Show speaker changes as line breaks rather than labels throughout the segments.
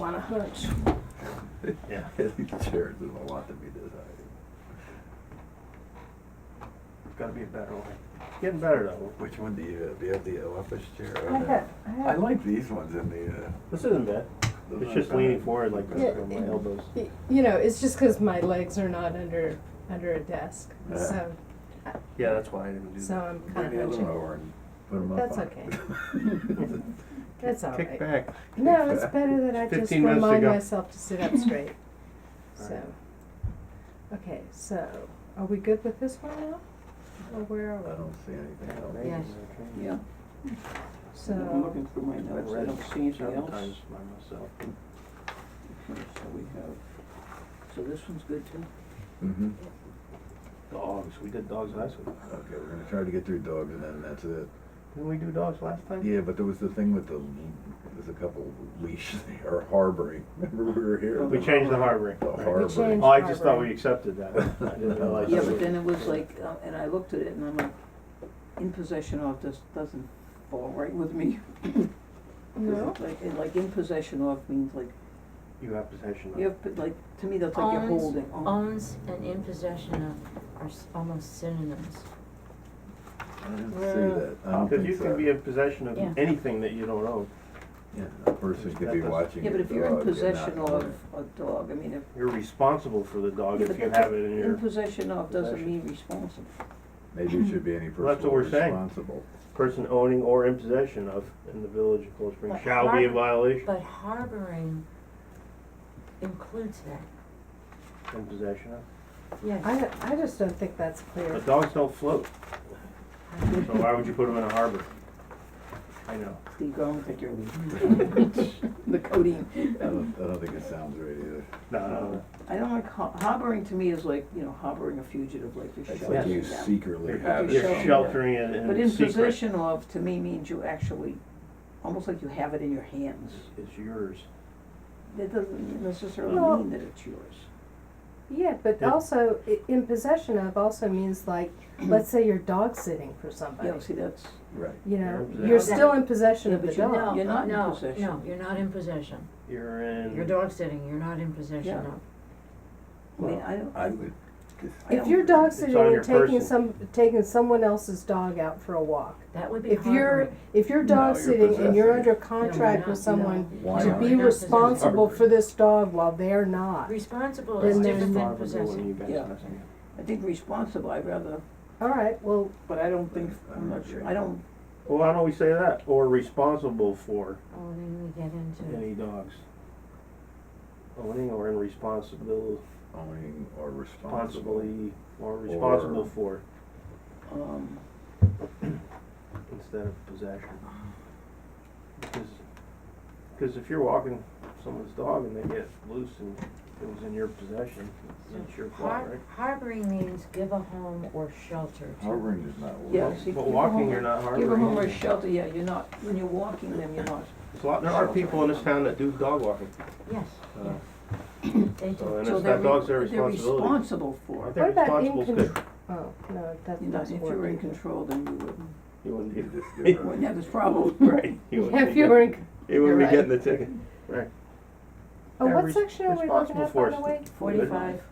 on a hunch.
Yeah.
These chairs is a lot to be decided.
Gotta be a better one. Getting better though.
Which one do you have? Do you have the office chair? or
I
the-
have- I have-
I like these ones in the, uh.
This isn't bad.
those
It's
aren't
just
bad.
leaning forward like
Yeah,
this on my elbows.
Y- You know, it's just because my legs are not under under a desk,
Yeah.
so
Yeah, that's why I didn't do
so
that.
I'm kind
Bring the
of
other one
hunching.
over and put 'em up
That's
on
okay.
it.
That's all
Kick
right.
back.
No, it's better that I just
15 minutes
remind
ago.
myself to sit up straight.
All
so,
right.
okay, so are we good with this one now? Or where
I
are
don't see anything else.
Yes.
Okay.
Yeah,
we?
I'm
So,
looking through my notes, I don't see anything else.
Sometimes by myself.
Okay, So we have, so this one's good too?
Mm-hmm.
Dogs, we did dogs last week.
Okay, we're gonna try to get through dogs and then that's it.
Didn't we do dogs last time?
Yeah, but there was the thing with the, there's a couple leash or harboring. Remember we were here?
We changed the harboring.
The harboring.
changed-
Oh, I just thought we accepted that. I didn't realize.
Yeah,
that
but
we-
then it was like, uh, and I looked at it and I'm like, in possession of just doesn't fall right with me. 'Cause
no,
it's Like, and like in possession of means like,
You have possession of.
you have, but like, to me, that's like you're
Owns-
holding on.
Owns and in possession of are s- almost synonyms.
I didn't see that. I don't
Cause
think
you
so.
can be in possession of
Yeah.
anything that you don't own.
Yeah, a person could be
That doesn't-
watching.
Yeah, but
a
if you're in
dog, not
possession
owning
of
it.
a dog, I mean, if.
You're responsible for the dog
yeah,
if
but
you
that's-
have it in your
In possession of doesn't
possession.
mean responsible.
Maybe it should be any
Well, that's
person
what we're saying.
responsible.
person owning or in possession of in the village of Cold Spring
But
shall be a
harbor-
violation.
But harboring includes that,
In possession of.
yes.
I, I just don't think that's clear.
But dogs don't float, so why would you put them in a harbor? I know.
Steve, I don't think you're leaving. The codeine.
I don't, I don't think it sounds right either.
No, no, no.
I don't like, har- harboring to me is like, you know, harboring a fugitive, like you're
It's
sheltering
like
them.
you secretly
You're-
have it
You're
somewhere.
sheltering it in secret.
But in possession of, to me, means you actually, almost like you have it in your hands.
It's yours.
That doesn't necessarily
Well-
mean that it's yours.
Yeah, but
Yeah.
also i- in possession of also means like, let's say you're dog sitting for somebody.
Yeah, see, that's,
Right.
You know,
You're in
you're
possession.
still in possession
Yeah,
of the
but you-
dog.
you're not in
No,
possession.
No, you're not in possession.
You're in.
You're dog sitting, you're not in possession
Yeah.
of.
I mean, I don't,
I would, just-
I
If
don't-
you're dog
It's
sitting
on
and
your
taking
person.
some, taking someone else's dog out for a walk,
That would be
if you're,
harboring.
if you're
No,
dog
you're
sitting and you're
possessing.
under contract with
No, you're not.
someone
why
To
to
not?
be
You're not possessing.
responsible for this dog while they're not.
Responsible
Then
is
It's
there's-
different than
harbored when you
possessing.
guys
Yeah.
possessing
I think responsible, I'd rather,
All right, well,
but I don't think,
I don't
I'm not sure,
agree.
I don't,
it. Well, why don't we say that? Or responsible for
Oh, then we get into,
any dogs. Owning or in responsibility,
Owning or responsible.
responsibly, or responsible
Or-
for
um,
instead of possession. Because, because if you're walking someone's dog and they get loose and it was in your possession, it's your fault,
har-
right?
harboring means give a home or shelter to.
Harboring is not.
yeah,
working.
see.
But
give a
walking,
home-
you're not
Give them home or
harboring.
shelter, yeah, you're not, when you're walking them, you're not,
There's a lot- There are people in this town that do dog walking.
Yes,
Uh,
yes. They
so
do.
And
so
it's
they're,
that
re-
dog's their
they're
responsibility.
responsible
I
for. it.
think
what about in
responsible is
control?
good.
Oh, no, that's
You know,
not
if you were in
working.
control, then you wouldn't,
You wouldn't
You
be,
just give
wouldn't
her-
have this problem.
right, you wouldn't
If
be,
you
get-
were in,
you wouldn't
you're
be
right.
getting the ticket. Right.
oh,
They're
what
res-
section are we looking
responsible
at by
for
the
it.
way?
Forty-five,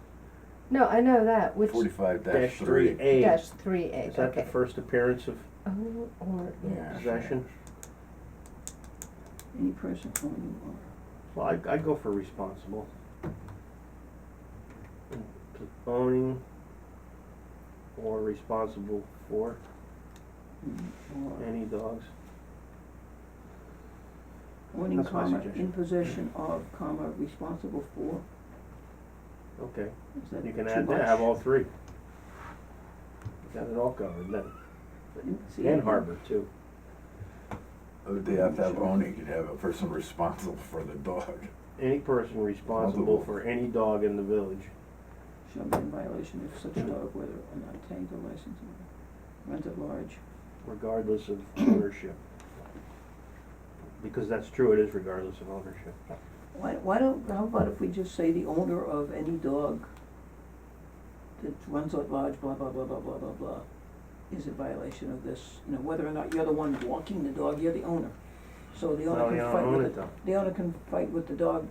No, I know that, which,
Forty-five
Dash
dash
three
three.
A.
dash three A,
Is that the
okay.
first appearance of
Oh, or,
Yeah.
possession?
Any person oh, owning or
Well, I'd, I'd go for responsible. Owning or responsible for
or
any dogs.
owning
That's my
comma,
suggestion.
in possession of comma, responsible for,
Okay,
is that too much?
you can add that, have all three. Got it all covered then.
In- see,
And harbor too.
Oh, They have to have owning, you'd have a person responsible for the dog.
Any person responsible
Responsible.
for any dog in the village.
Shall be in violation if such dog, whether or not tagged or licensed or rent at large.
regardless of ownership. Because that's true, it is regardless of ownership.
Why, why don't, how about if we just say the owner of any dog that runs at large, blah, blah, blah, blah, blah, blah, blah, is in violation of this, you know, whether or not you're the one walking the dog, you're the owner. So the
Well,
owner
you
can
don't
fight
own
with
it,
the,
though.
the owner can fight with the dog,